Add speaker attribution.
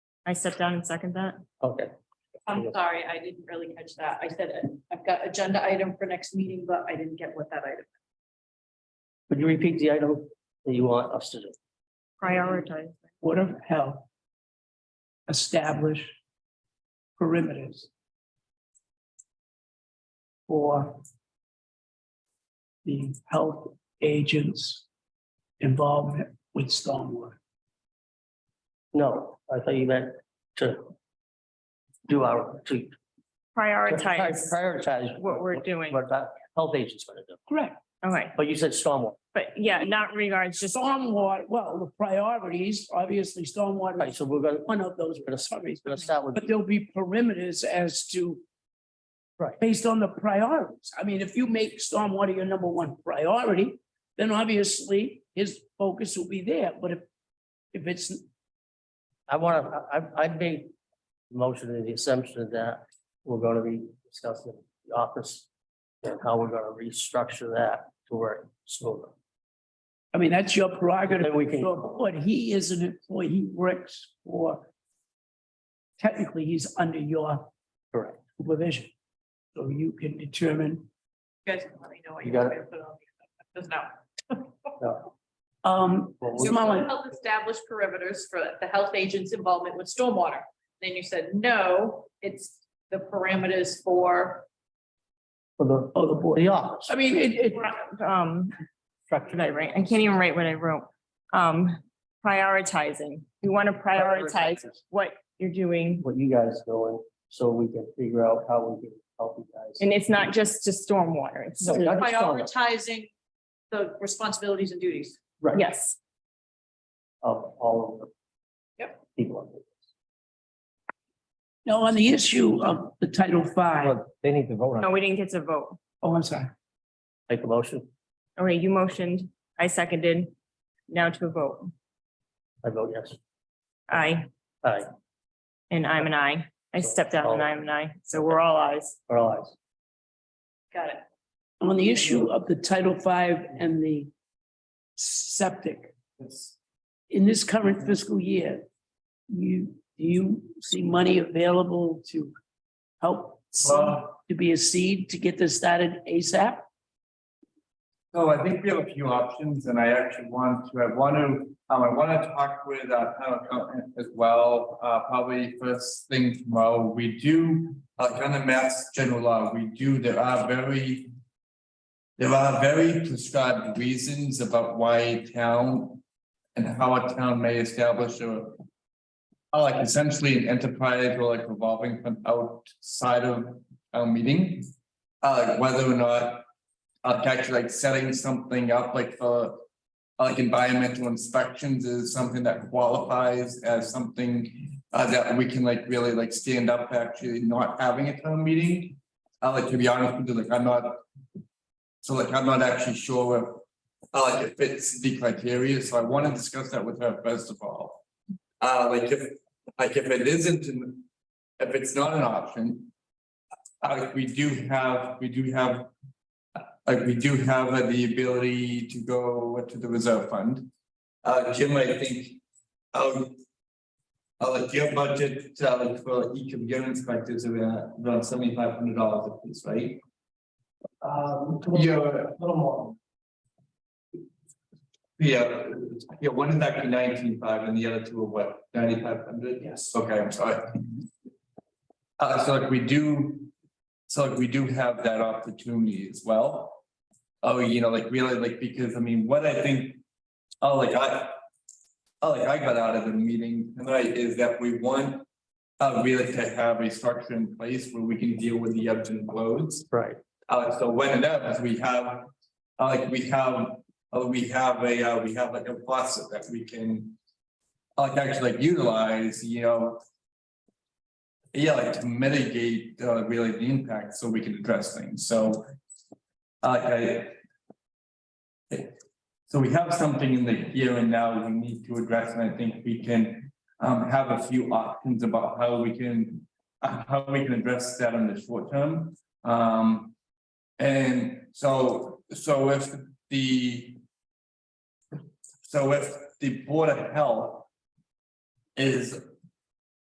Speaker 1: I step down and second that.
Speaker 2: Okay,
Speaker 3: I'm sorry, I didn't really catch that. I said uh, I've got agenda item for next meeting, but I didn't get what that item.
Speaker 2: would you repeat the item that you want us to do?
Speaker 1: Prioritize.
Speaker 4: Board of Health establish perimeters for the health agents' involvement with stormwater.
Speaker 2: No, I thought you meant to do our, to. to
Speaker 1: Prioritize
Speaker 2: Prioritize.
Speaker 1: what we're doing.
Speaker 2: What that health agent's gonna do,
Speaker 4: Correct.
Speaker 1: Okay,
Speaker 2: but you said stormwater,
Speaker 1: but yeah, not regards, just,
Speaker 4: Stormwater, well, the priorities, obviously, stormwater
Speaker 2: right,
Speaker 4: is
Speaker 2: so we're gonna,
Speaker 4: one of those
Speaker 2: we're gonna, we're gonna start with,
Speaker 4: But there'll be perimeters as to.
Speaker 2: Right.
Speaker 4: Based on the priorities. I mean, if you make stormwater your number one priority, then obviously his focus will be there, but if. If it's,
Speaker 2: I wanna, I, I- I made the motion in the assumption that we're gonna be discussing the office and how we're gonna restructure that to work smoother.
Speaker 4: I mean, that's your prerogative,
Speaker 2: Then we can-
Speaker 4: but he is an employee, he works for. Technically, he's under your.
Speaker 2: Correct.
Speaker 4: Supervision. So you can determine,
Speaker 3: You guys can let me know what
Speaker 2: You
Speaker 3: you
Speaker 2: got
Speaker 3: want me to put on. the agenda. Just now.
Speaker 4: um,
Speaker 2: Well, we-
Speaker 4: Mr. Mullin,
Speaker 3: Health established perimeters for the health agent's involvement with stormwater. Then you said, no, it's the parameters for,
Speaker 2: For the,
Speaker 4: oh, the board.
Speaker 2: the office.
Speaker 4: I mean, it, it,
Speaker 1: um, what did I write? I can't even write what I wrote. Um, prioritizing. We want to prioritize what you're doing.
Speaker 2: What you guys doing, so we can figure out how we can help you guys.
Speaker 1: And it's not just to stormwater. It's,
Speaker 2: No, not just on that,
Speaker 3: prioritizing the responsibilities and duties.
Speaker 2: Right.
Speaker 1: yes.
Speaker 2: Of all of the.
Speaker 3: Yep.
Speaker 2: People. on it.
Speaker 4: no, on the issue of the Title Five,
Speaker 2: Well, They need to vote on,
Speaker 1: No,
Speaker 2: it.
Speaker 1: we didn't get to vote.
Speaker 4: oh, I'm sorry.
Speaker 2: make a motion,
Speaker 1: Okay, you motioned, I seconded. Now to a vote.
Speaker 2: I vote yes,
Speaker 1: Aye,
Speaker 2: aye,
Speaker 1: and I'm an aye. I stepped out and I'm an aye. So we're all ayes.
Speaker 2: or all ayes.
Speaker 3: Got it.
Speaker 4: on the issue of the Title V and the septic. In this current fiscal year, you, do you see money available to help seed-
Speaker 5: Well,
Speaker 4: to be a seed to get this started ASAP?
Speaker 5: so I think we have a few options and I actually want to, I want to, um, I want to talk with our town accountant as well. Uh, probably first thing tomorrow, we do, uh, like on the mass general law, we do, there are very. There are very prescribed reasons about why a town and how a town may establish a. uh, Like essentially an enterprise or like revolving fund outside of our meeting. Uh, like whether or not uh, actually like setting something up like for. uh, Like environmental inspections is something that qualifies as something uh that we can like really like stand up actually not having a town meeting. Uh, like to be honest with you, like I'm not. So like I'm not actually sure if, uh, like it fits the criteria, so I want to discuss that with her first of all. Uh, like if, like if it isn't, an- if it's not an option. Uh, like we do have, we do have like we do have uh, the ability to go to the reserve fund. Uh, Jim, I think, um. Uh, like your budget, uh, like for each of your inspectors, are around- around seventy-five hundred dollars a piece, right?
Speaker 2: Um,
Speaker 5: Yeah,
Speaker 2: little more.
Speaker 5: yeah, yeah, one is actually nineteen-five and the other two are what, ninety-five hundred?
Speaker 4: Yes.
Speaker 5: Okay, I'm sorry. Uh, so like we do, so like we do have that opportunity as well. Oh, you know, like really, like, because I mean, what I think, oh, like I. Oh, like I got out of the meeting tonight is that we want. Uh, really to have a structure in place where we can deal with the ebbs and flows.
Speaker 2: Right,
Speaker 5: Uh, so when it happens, we have, uh, like, we have, uh, we have a, uh, we have like a faucet that we can. uh, Like, actually like utilize, you know. Yeah, like to mitigate, uh, really the impact so we can address things, so. uh, Like I. So we have something in the here and now we need to address, and I think we can, um, have a few options about how we can. uh, How we can address that in the short term, um. And so, so if the. So if the Board of Health. Is